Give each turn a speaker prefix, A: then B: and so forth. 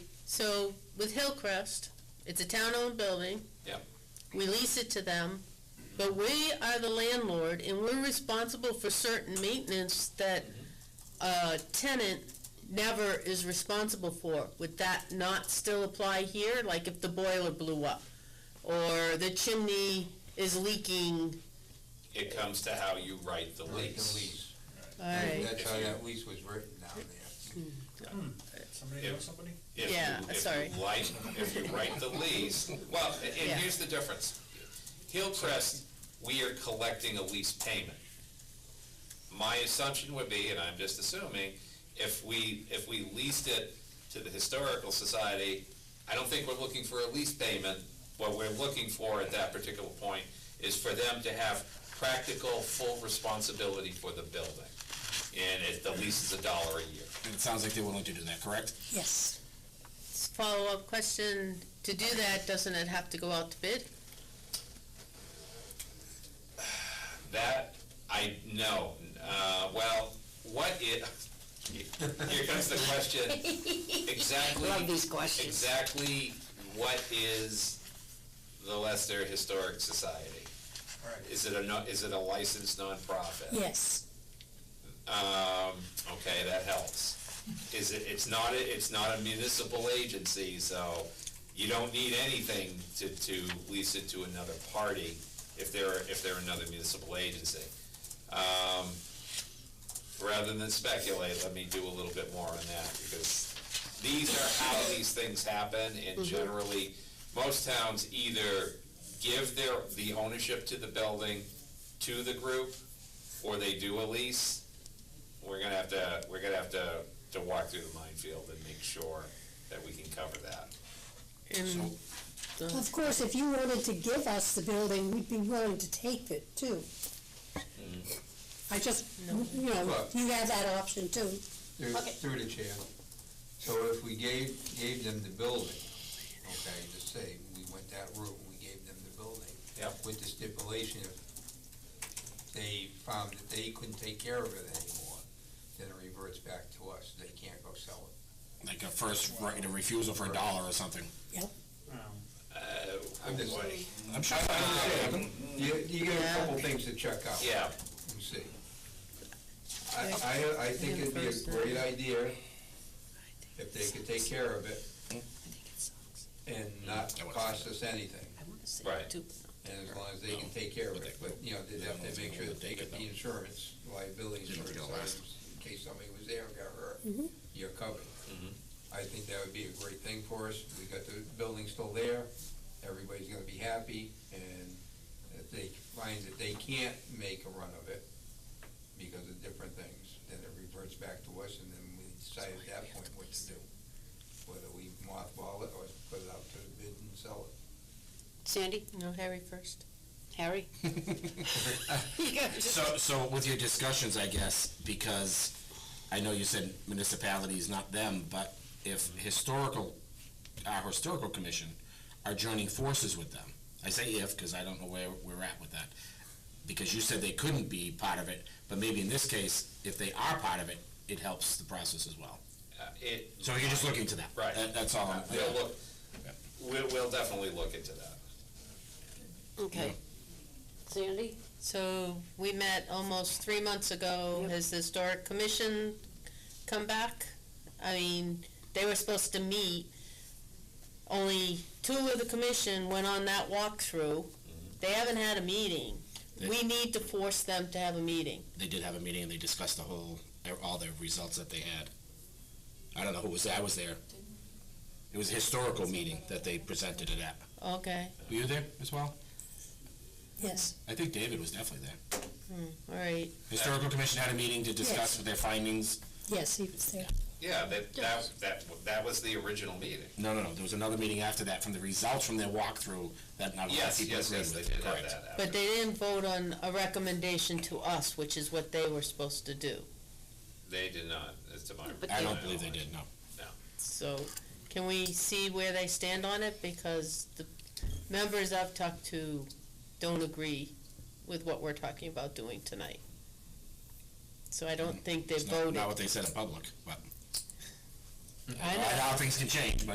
A: So with Hillcrest, it's a town-owned building.
B: Yep.
A: We lease it to them, but we are the landlord and we're responsible for certain maintenance that a tenant never is responsible for. Would that not still apply here, like if the boiler blew up? Or the chimney is leaking?
B: It comes to how you write the lease.
A: All right,
C: That's how that lease was written down there.
D: Somebody
B: Yeah.
D: know somebody?
B: If you-
A: Yeah,
B: if you
A: sorry.
B: like- If you write the lease, well, a-
A: Yeah.
B: and here's the difference. Hillcrest, we are collecting a lease payment. My assumption would be, and I'm just assuming, if we, if we leased it to the Historical Society, I don't think we're looking for a lease payment. What we're looking for at that particular point is for them to have practical, full responsibility for the building. And if the lease is a dollar a year.
E: And it sounds like they're willing to do that, correct?
A: yes. Follow-up question, to do that, doesn't it have to go out to bid?
B: That, I, no, uh, well, what i- here comes the question, exactly.
F: Love these questions.
B: Exactly what is the Leicester Historic Society?
D: Right.
B: Is it a, no- is it a licensed nonprofit?
F: Yes,
B: Um, okay, that helps. Is it, it's not, a- it's not a municipal agency, so you don't need anything to, to lease it to another party if they're, if they're another municipal agency. Um, rather than speculate, let me do a little bit more on that, because these are how these things happen, and generally, most towns either give their, the ownership to the building to the group, or they do a lease we're gonna have to, we're gonna have to, to walk through the minefield and make sure that we can cover that.
A: And
F: of course, if you wanted to give us the building, we'd be willing to take it too. I just, you know,
C: Look.
F: you have that option too.
C: Through,
F: Okay.
C: through the chair. So if we gave, gave them the building, okay, just say, we went that route, and we gave them the building.
B: Yep.
C: With the stipulation if they found that they couldn't take care of it anymore, then it reverts back to us, they can't go sell it.
E: Like a first right of refusal for a dollar or something.
B: Uh,
C: I'm just
B: boy.
C: saying.
E: I'm sure.
C: Um, You, you got a couple
A: Yeah.
C: things to check out.
B: Yeah,
C: and see. I, I, I think it'd be a great idea if they could take care of it and not cost us anything,
B: right.
C: and as long as they can take care of it, but, you know, they'd have to make sure that they get the insurance, liability insurance, in case somebody was there and got hurt, you're covered. I think that would be a great thing for us, we got the building still there, everybody's gonna be happy, and if they find that they can't make a run of it because of different things, then it reverts back to us, and then we decide at that point what to do. Whether we mothball it or put it out to bid and sell it.
F: Sandy,
A: No, Harry first.
F: Harry?
E: So, so with your discussions, I guess, because I know you said municipalities, not them, but if historical, our historical commission are joining forces with them, I say if, because I don't know where we're at with that, because you said they couldn't be part of it, but maybe in this case, if they are part of it, it helps the process as well.
B: Uh, It,
E: So you're just looking to that?
B: Right.
E: That- That's all. I'm-
B: we'll look, we'll, we'll definitely look into that.
F: Okay. Sandy?
A: So we met almost three months ago. Has the historic commission come back? I mean, they were supposed to meet. Only two of the commission went on that
C: Mm-hmm.
A: walkthrough. They haven't had a meeting. We need to force them to have a meeting.
E: they did have a meeting and they discussed the whole, all the results that they had. I don't know who was there, I was there. It was a historical meeting that they presented it at.
A: Okay,
E: Were you there as well?
F: Yes.
E: I think David was definitely there.
A: Hmm. all right.
E: Historical Commission had a meeting to
F: Yes.
E: discuss their findings.
F: Yes, he was there.
B: Yeah, that, that, that, that was the original meeting.
E: No, no, no, there was another meeting after that from the results from their walkthrough that not a lot of
B: Yes,
E: people
B: yes,
E: agreed
B: yes,
E: with.
B: they did have
E: Correct.
B: that.
A: But they didn't vote on a recommendation to us, which is what they were supposed to do.
B: They did not, as to my.
E: I don't believe they did, no.
A: So can we see where they stand on it? Because the members I've talked to don't agree with what we're talking about doing tonight. So I don't think they
E: It's not-
A: voted.
E: Not what they said in public, but,
A: I know.
E: how things can change, but.